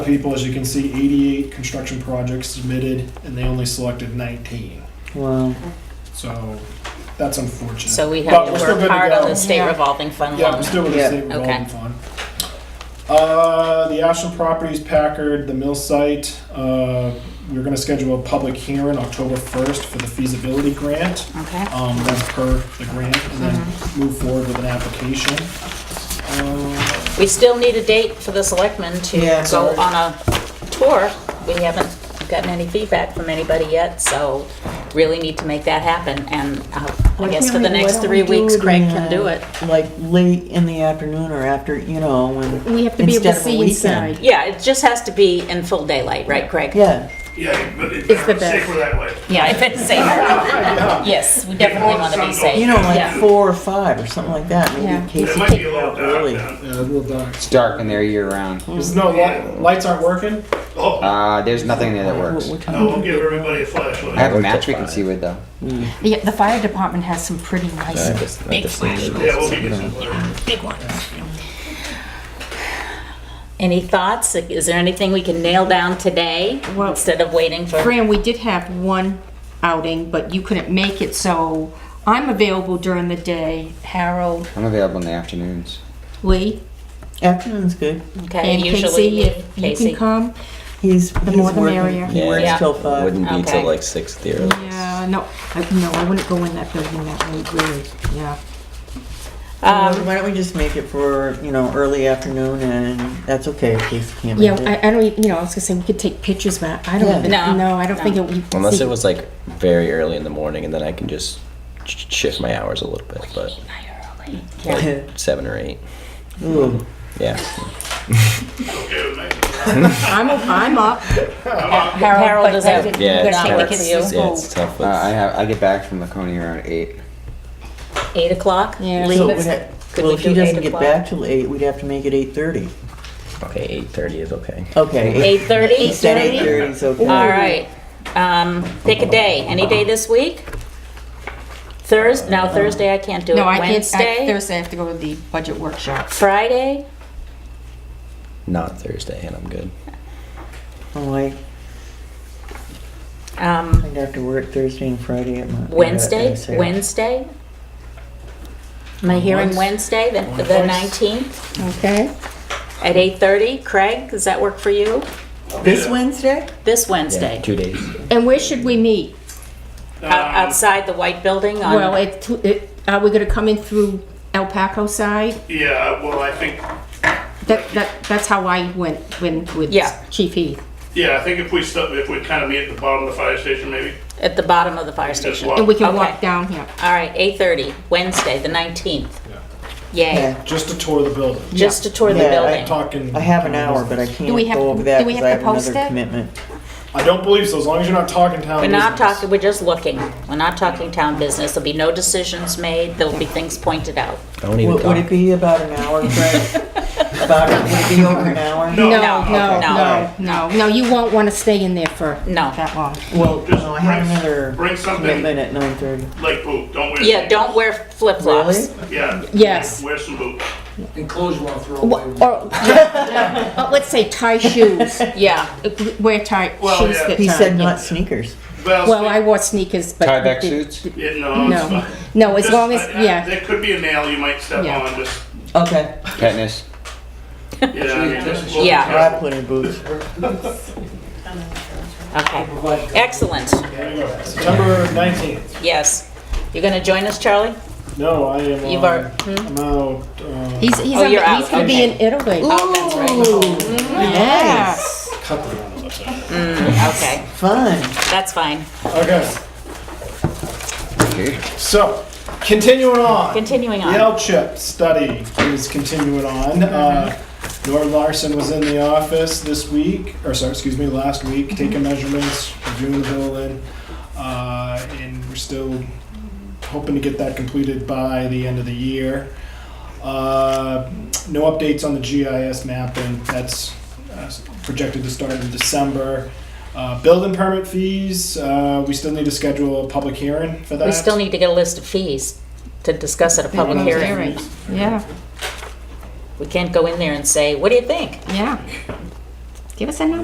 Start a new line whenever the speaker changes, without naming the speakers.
people, as you can see, 88 construction projects submitted, and they only selected 19.
Wow.
So that's unfortunate.
So we
But
have to
we're still good
work
to
hard
go.
on the state
Yeah.
revolving fund
Yeah, we're
loan.
still with the
Yeah.
state
Okay.
revolving fund. Uh, the Ashland Properties, Packard, the mill site, uh, we're gonna schedule a public hearing October 1st for the feasibility grant.
Okay.
Um, that's per the grant, and
Mm-hmm.
then move forward with an application. Uh,
We still need a date for the selectmen
Yeah,
to go
sorry.
on a tour. We haven't gotten any feedback from anybody yet, so really need to make that happen. And uh, I
Why
guess
can't
for the
we- why
next
don't we
three
do
weeks,
it
Craig
in,
can
uh,
do it.
Like late in the afternoon or after, you know, when.
We have to be able
instead of
to
a
see
weekend.
inside.
Yeah, it just has to be in full daylight, right, Craig?
Yeah,
Yeah, but it's
It's the
safer
best.
that way.
Yeah, if it's safe. Yes, we definitely want to be safe.
you know, like
Yeah.
four or five or something like that, maybe
Yeah.
It
Casey
might
take
be a
it
little
out
dark
early.
now.
Yeah, a little dark.
It's dark in there year round.
There's no light, lights aren't working?
Oh,
Uh, there's nothing in there that
What-
works.
what time
no, we'll
is it?
give everybody a
I have
flashlight.
a match we can see with though.
Yeah, the fire department has some pretty nice
Big
Yeah, we'll give you some.
Big one. Any thoughts? Is there anything we can nail down today
Well-
instead of waiting for?
Fran, we did have one outing, but you couldn't make it, so I'm available during the day. Harold,
I'm available in the afternoons.
Lee,
Afternoon's good.
Okay,
and
usually
Casey,
me,
if you can
Casey.
come.
He's, he's
more the
working,
merrier.
he
Yeah.
works till five.
Wouldn't be
Okay.
till like six there.
Yeah, no, I- no, I wouldn't go in that building that late, really, yeah.
Um, Why why don't we just make it for, you know, early afternoon and that's okay if Casey can't
Yeah,
make it.
I, I don't, even- you know, I was gonna say, we could take pictures, but I don't
Yeah.
even,
No.
no, I don't think it would.
Unless it was like very early in the morning, and then I can just sh- shift my hours a little bit, but seven or eight.
Ooh,
Yeah.
Okay, with me.
I'm, I'm up.
Harold is out.
Yeah, it's
Not
tough.
working for you.
Yeah, it's tough.
Uh,
With,
I have I get back from Laconia around eight.
Eight o'clock?
Yeah.
Leave
so
it?
we'd ha-
Could
well,
we
if he
do eight
doesn't get
o'clock?
back till eight, we'd have to make it eight thirty.
okay, eight thirty is okay.
Okay.
Eight thirty?
Instead of eight thirty is okay.
All right. Um, pick a day. Any day this week? Thursday? No, Thursday I can't do it.
No, I can't, I-
Wednesday?
Thursday I have to go to the budget workshop.
Friday?
Not Thursday, and I'm good.
Oh, I,
Um,
I'd have to work Thursday and Friday at my.
Wednesday?
Wednesday.
Wednesday? Am I hearing Wednesday, the the
Wednesday.
nineteenth,
Okay.
at eight thirty? Craig, does that work for you?
This Wednesday?
This
Yeah,
Wednesday?
two days.
And where should we meet?
Out- Outside the white building on?
Well, it, it, are we gonna come in through El Paco side?
Yeah, well, I think,
That, that, that's how I went, went with
Yeah.
Chief Heath.
yeah, I think if we stop, if we kind of meet at the bottom of the fire station, maybe.
At the bottom of the fire
Just
station.
walk.
And we can
Okay.
walk down here.
All right, eight thirty, Wednesday, the nineteenth. Yay,
Yeah.
Just to tour the building.
just to tour the
Yeah, I
building.
Talking.
I have an hour, but I can't
we have-
go over that
do we
because
have
I
to
have
post
another
it?
commitment.
I don't believe so, as long as you're not talking town
We're not
business.
talking, we're just looking. We're not talking town business. There'll be no decisions made. There'll be things pointed out.
Don't even
Would,
talk.
would it be about an hour, Craig? About, would it be over an hour?
No,
No.
no,
no.
no, no, no, you won't wanna stay in there for
No.
that long.
Well,
Just
no, Oh, I have
bring-
another
Bring something
commitment at nine thirty.
like boot, don't wear.
Yeah, don't wear flip flops.
Really?
Yeah.
Yes.
Wear some boots.
Wha- Or, uh, let's say tie shoes,
Yeah,
wear tie
Well,
shoes
yeah.
that
He
tie,
said
yeah.
not sneakers.
Well, I wore sneakers, but.
Tie back suits?
Yeah, no, it's
No,
fine.
no, as
Just,
long as,
uh,
yeah,
There could be a nail you might step
Yeah.
on, just,
Okay.
Katniss.
yeah, I mean, just. we'll be
Yeah.
I
careful.
put in boots.
okay. Excellent,
There you go. September 19th.
yes. You're gonna join us, Charlie?
No, I am.
You've Hmm?
um,
are-
I'm out. Uh,
he's, he's,
Oh,
on-
you're
he's
out,
gonna be in
okay.
Italy.
Oh, that's right.
Yeah.
cut the round of it.
Okay,
Fun.
that's fine.
Okay. So, continuing on.
Continuing
The
on.
L chip study is continuing on. Uh,
Mm-hmm.
Nord Larson was in the office this week, or sorry, excuse me, last week,
Mm-hmm.
taking measurements, reviewing the building, uh, and we're still hoping to get that completed by the end of the year. Uh, no updates on the GIS mapping. That's uh, projected to start in December. Uh, building permit fees. Uh, we still need to schedule a public hearing for that.
We still need to get a list of fees to discuss at a public
Yeah.
hearing.
Yeah,
We can't go in there and say, what do you think?
yeah. Give us a number.